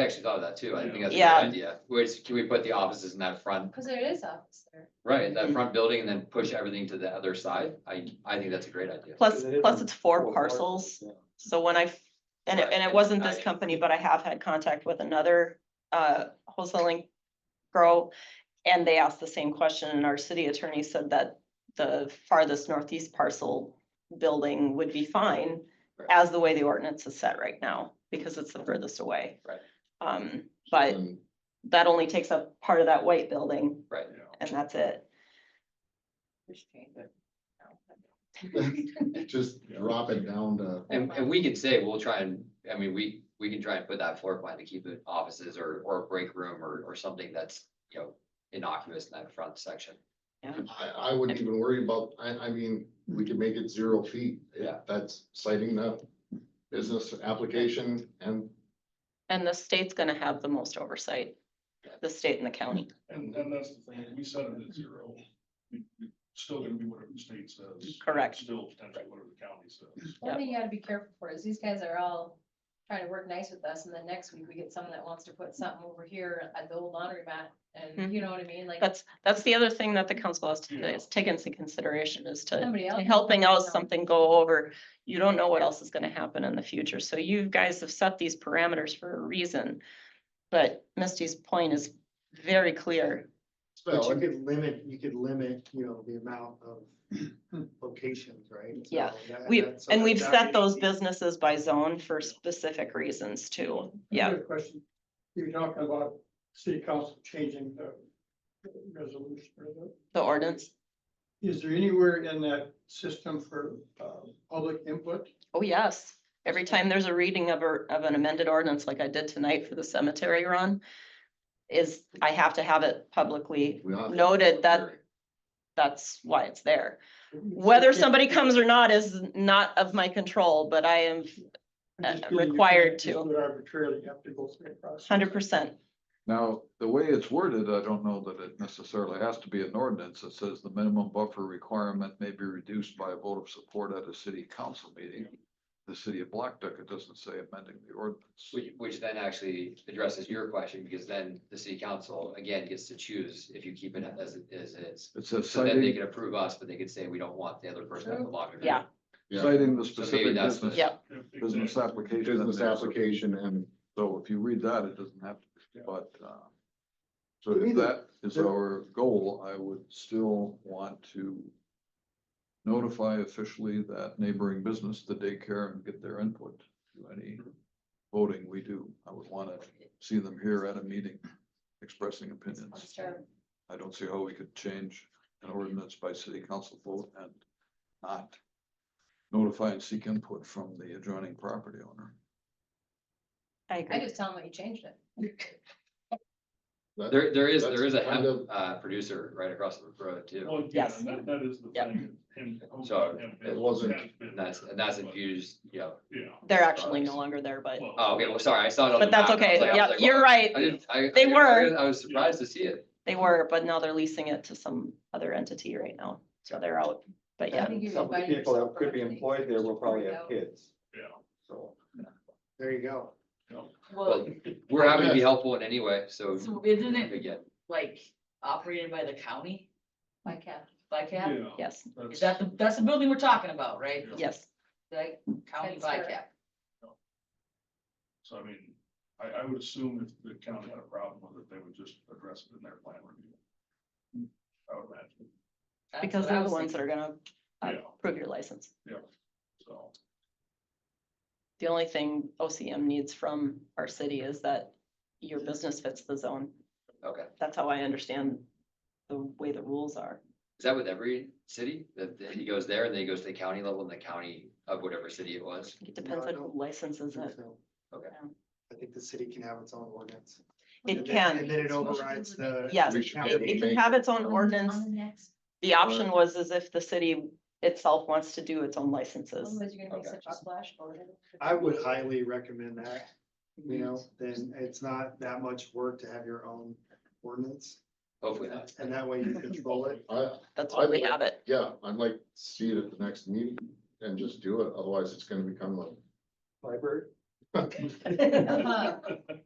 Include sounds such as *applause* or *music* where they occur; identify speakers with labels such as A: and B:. A: actually thought of that too. I think that's a good
B: Yeah.
A: idea. Whereas, can we put the offices in that front,
C: Cause there is office there.
A: right, in
B: Mm-hmm.
A: that front building and then push everything to the other side? I, I think that's a great idea.
B: Plus,
D: It is
B: plus
D: on
B: it's four
D: four
B: parcels,
D: yeah.
B: so when I, f- and it, and it wasn't this
A: Right.
B: company, but I have had contact with another uh wholesaling girl. And they asked the same question, and our city attorney said that the farthest northeast parcel building would be fine.
A: Right.
B: As the way the ordinance is set right now, because it's the furthest away.
A: Right.
B: Um, but
A: Mm,
B: that only takes up part of that white building,
A: Right.
B: and that's it.
C: Just change it.
D: *laughs*
E: Just drop it down to,
A: And, and we can say, we'll try and, I mean, we, we can try and put that floor plan to keep it offices or, or a break room or, or something that's, you know, innocuous in that front section.
E: I, I wouldn't even worry about, I, I mean, we could make it zero feet.
A: Yeah.
E: That's citing the business application and,
B: And the state's gonna have the most oversight, the state and the county.
F: And, and that's the thing, if we set it at zero, we, we still gonna be whatever the state says.
B: Correct.
F: Still potentially whatever the county says.
B: Yep.
C: One thing you gotta be careful for is these guys are all trying to work nice with us and then next week we get someone that wants to put something over here at the old laundromat. And you know what I mean? Like
B: Mm-hmm. That's, that's the other thing that the council has to, do
F: Yeah.
B: is take into consideration is to,
C: somebody
B: to
C: else.
B: helping out
C: Yeah.
B: something go over. You don't know what else is gonna happen in the future, so you guys have set these parameters for a reason. But Misty's point is very clear,
D: But
E: Well,
D: you could limit, you could limit, you know, the amount *clears throat* of locations, right? So
B: Yeah.
D: that-
B: we,
D: that- so
B: and we've
D: that-
B: set those businesses by zone for specific reasons too, yeah.
G: Another Question, you were talking about city council changing the resolution. or the-
B: The ordinance,
G: Is there anywhere in that system for uh, public input?
B: oh yes, every time there's a reading of a, of an amended ordinance like I did tonight for the cemetery run. Is, I have to have it publicly,
E: we don't-
B: Noted that- that's why it's there. Whether somebody comes or not is not of my control, but I am
G: I'm just
B: uh,
G: feeling you
B: required
G: can't just
B: to.
G: do it Arbitrarily, you have to go through a process.
B: hundred percent.
H: Now, the way it's worded, I don't know that it necessarily has to be an ordinance. It says the minimum buffer requirement may be reduced by a vote of support at a city council meeting. The city of Black Duck, it doesn't say amending the ordinance.
A: Which, which then actually addresses your question, because then the city council, again, gets to choose if you keep it as it as it is.
H: It says
A: So then they
H: citing,
A: can approve us, but they could say, we don't want the other person at the locker.
B: Yeah.
E: Yeah,
H: citing the
A: So maybe
H: specific
A: that's
H: business,
B: Yeah.
H: business
F: Exactly.
H: application.
E: business
H: that makes it-
E: application and
H: So if you read that, it doesn't have, to. but, uh, so
D: To me,
H: if
D: the-
H: that is
D: the-
H: our goal, I would still want to notify officially that neighboring business, the daycare, and get their input to any voting we do. I would want to see them here at a meeting expressing opinions.
C: Sure.
H: I don't see how we could change an ordinance by city council vote and not notify and seek input from the adjoining property owner.
B: I
C: I
B: agree.
C: just tell them that you changed it.
E: that-
A: There, there is, there is a
E: That's kind
A: hemp
E: of-
A: uh, producer right across the road too.
F: Well, yeah,
B: Yes.
F: and that, that is the
B: Yep.
F: thing. him-
A: So,
F: him-
A: it
E: wasn't-
F: him-
A: And that's, and that's infused, you know.
F: Yeah.
B: They're actually no longer there, but,
F: well,
A: Oh, okay, well, sorry, I saw it on the
B: but that's
A: map, and I was like-
B: okay.
A: I was
B: Yeah,
A: like,
B: you're
A: wow. I
B: right.
A: didn't, I.
B: They
A: I- I
B: were.
A: didn't- I was surprised to see it.
B: They were, but now they're leasing it to some other entity right now. So they're out. But
C: I
B: yeah,
C: think you
D: Some of the
C: invited
D: people
C: yourself
D: that
C: for
D: could be
C: everything.
D: employed there will probably have kids,
F: Yeah.
D: so there you go.
I: Well,
A: Well, we're happy to be helpful in any way, so.
I: so isn't it
A: Again,
I: like operated by the county,
C: By Cap.
F: Yeah.
I: by cap?
B: yes,
F: that's-
I: Is that the, that's the building we're talking about, right?
F: Yeah.
B: yes.
I: The county
C: That's
I: by
C: correct.
I: cap.
F: So I mean, I, I would assume if the county had a problem with it, they would just address it in their plan review. I would imagine,
I: That's
B: Because
I: what I
B: they're the
I: was
B: ones
I: thinking.
B: that are gonna uh,
F: Yeah.
B: prove your license.
F: so.
B: The only thing OCM needs from our city is that your business fits the zone.
A: okay.
B: That's how I understand the way the rules are.
A: Is that with every city that that he goes there and then he goes to the county level and the county of whatever city it was?
B: It depends on who licenses
D: I
B: it.
D: think so.
A: Okay.
D: I think the city can have its own ordinance.
B: It
D: And then-
B: can.
D: And then it overrides the.
B: Yes,
E: We should
D: county.
E: get
B: It it can
E: make-
B: have its own
C: On-
B: ordinance.
I: Mm-hmm.
C: On the next,
B: The option was as if the city itself wants to do its own licenses.
C: otherwise you're gonna make
A: Okay.
C: such a splash. over it.
D: I
C: *laughs*
D: would highly recommend that, you know, then it's not that much work to have your own ordinance.
A: Hopefully not.
D: And that way you control it.
E: I,
B: That's
E: I
B: why we
E: would-
B: have it.
E: yeah, I'd like to see it at the next meeting and just do it, otherwise it's gonna become like,
D: Library.
C: Uh-huh.